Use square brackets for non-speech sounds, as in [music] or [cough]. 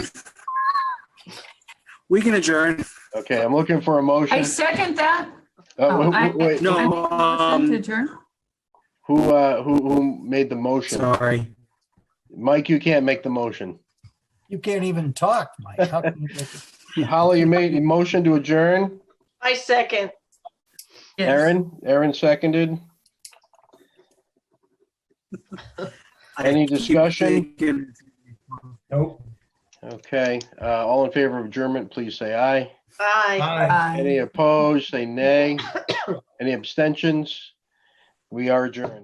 We can adjourn. Okay, I'm looking for a I motion. second that. Uh, oh, I- wait, wait, I No, make a motion to um, adjourn. Who, uh, who, who made the motion? sorry. Mike, you can't make the motion. You can't even talk, Mike. How can you make it? Holly, you made a motion to adjourn. I second. Yes. Aaron, Aaron seconded. Any I keep discussion? thinking- Nope. Okay, uh, all in favor of adjournment, please say aye. Aye. Aye. Aye. [coughs] Any opposed, say nay. Any abstentions? We are adjourned.